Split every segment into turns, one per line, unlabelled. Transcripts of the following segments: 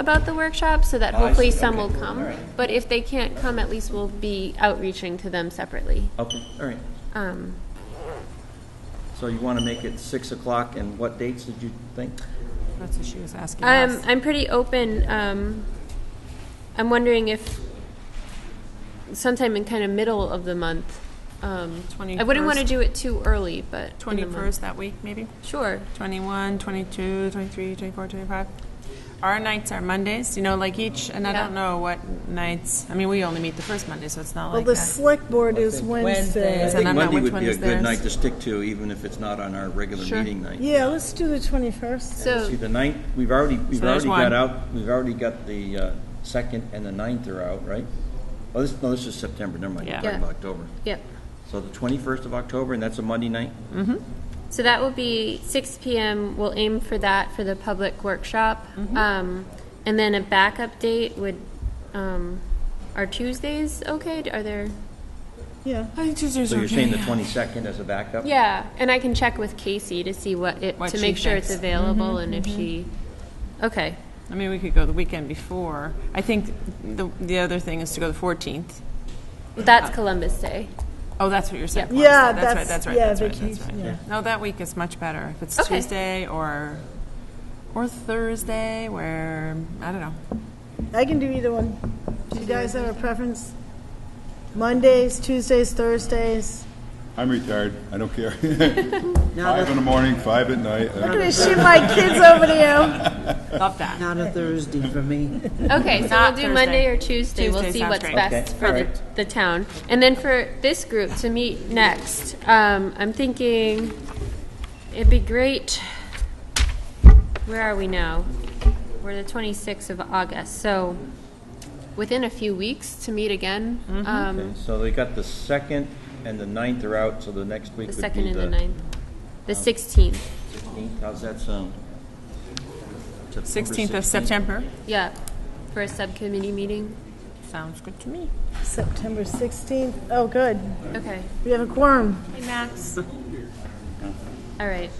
about the workshop, so that
Oh, I
hopefully
see.
some
Okay.
will
All
come.
right.
But if they can't come, at least we'll be outreaching to them separately.
Okay, all right.
Um,
So you want to make it 6 o'clock, and what dates did you think?
That's what she was asking
I'm,
us.
I'm pretty open. Um, I'm wondering if sometime in kind of middle of the month. Um, I wouldn't want to
21st.
do it too early, but. in the month.
Twenty-first that week, maybe?
Sure.
21, 22, 23, 24, 25. Our nights are Mondays, you know, like each, and I
Yeah.
don't know what nights, I mean, we only meet the first Monday, so it's not
Well,
like
Oh the
that.
select board is
Wednesday.
Wednesday.
And I'm not
Monday
which
would
one
be a
is
good
theirs.
night to stick to, even if it's not on our regular meeting night.
Yeah, let's do the 21st.
See,
So,
the ninth, we've already, we've
So there's
already got
one.
out, we've already got the uh, second and the ninth are out, right? Oh, this, no, this is September, never mind, we're
Yeah.
talking
Yeah.
about October.
yep.
So the 21st of October, and that's a Monday night?
So that will be 6 PM. We'll aim for that for the public workshop.
Mm-hmm.
Um, And then a backup date would, um, are Tuesdays okay? Are there?
Yeah,
I think Tuesdays
So
are
you're saying the
okay.
22nd as a backup?
Yeah, and I can check with Casey to see what it,
What
to
she
make sure it's
thinks. Mm-hmm,
available and if she, okay.
I mean, we could go the weekend before. I think the, the other thing is to go the 14th.
That's Columbus Day.
Oh, that's what you're saying. Columbus
yeah,
Day.
that's,
That's right,
yeah,
that's right, that's right, that's
vacation,
right.
yeah.
No, that week is much better, if it's
Okay.
Tuesday or, or Thursday, where, I don't know.
I can do either one. Do you guys have a preference? Mondays, Tuesdays, Thursdays?
I'm retired. I don't care. Five in the morning, five at night. Uh, I
I'm
don't-
gonna shoot my kids over to
Love that.
Not a Thursday for me.
Okay, so we'll
Not
do
Thursday.
Monday or Tuesday. we'll
Tuesday
see
sounds
what's
great.
best
Okay,
for the,
alright.
the town. And then for this group to meet next, um, I'm thinking it'd be great. Where are we now? We're the 26th of August, so within a few weeks to meet again.
Mm-hmm.
Um,
Okay, So they got the second and the ninth are out, so the next week
the
would be the...
second and the ninth, the 16th.
16th. How's that sound? September
16th of September.
Yeah, for a subcommittee meeting.
Sounds good to me.
you. September 16th, oh, good,
Okay,
we have a quorum.
Hey, Max.
all right.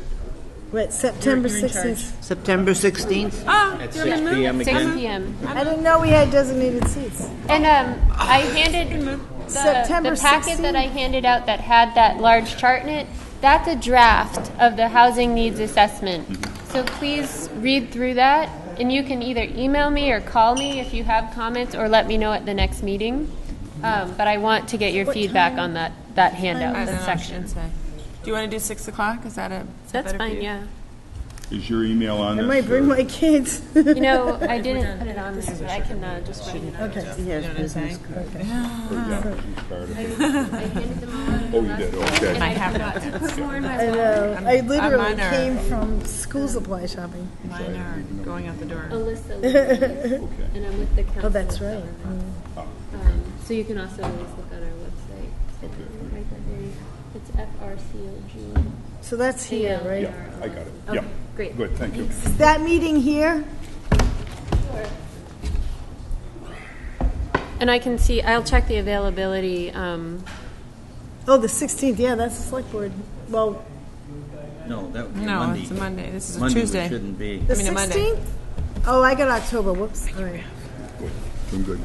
Wait, September 16th.
September 16th?
Oh,
At
you're in the
6
mood.
PM
Six
again?
PM.
I didn't know we had designated seats.
And um, I handed the,
September
the packet
16.
that I handed out that had that large chart in it. That's a draft of the housing needs assessment. So please read through that, and you can either email me or call me if you have comments, or let me know at the next meeting. Um, but I want to get your feedback on that that handout,
I don't
that
know,
section.
should say. Do you want to do 6 o'clock? Is that a? is that
That's
better for
fine.
you?
Yeah.
Is your email on
I
this?
might bring
or-
my kids.
You know, I didn't put it on there, but I can uh, just write it out.
Yes, business card.
or yeah, she's tired of it.
I handed them all out.
Oh, you did, okay.
I forgot to put more in my
I know, I literally
mine are-
came from school supply shopping.
Mine are going out the door.
Alyssa, Lee, and I'm with the council.
Oh, that's right. Mm.
Um, so you can also always look on our website.
Okay.
Right there. It's FRCOG.
So that's here, right?
Yeah, I got it.
Okay,
Yeah.
great.
Good, thank you.
Is that meeting here?
And I can see, I'll check the availability. Um,
Oh, the 16th, yeah, that's the select board. Well,
No, that would be a
No,
Monday.
it's a Monday. This is a
Monday,
Tuesday.
it shouldn't be.
the
mean, a Monday.
16th? Oh, I got October, whoops. All right.
I'm good.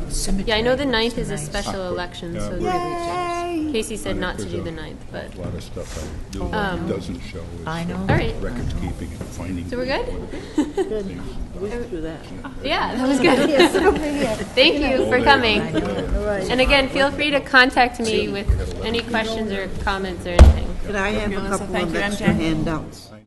yeah, I know the ninth is a special election, so
Yay!
Casey said not to do the ninth, but,
A lot of stuff I do that doesn't show. I know.
Um, all right.
Record keeping and finding.
So we're good?
Do that.
Yeah, that was good. Thank you for coming.
Oh,
And again, feel free to contact me with any questions or comments or anything.
Could I have a couple
Thank
of
you,
extra
MJ.
handouts?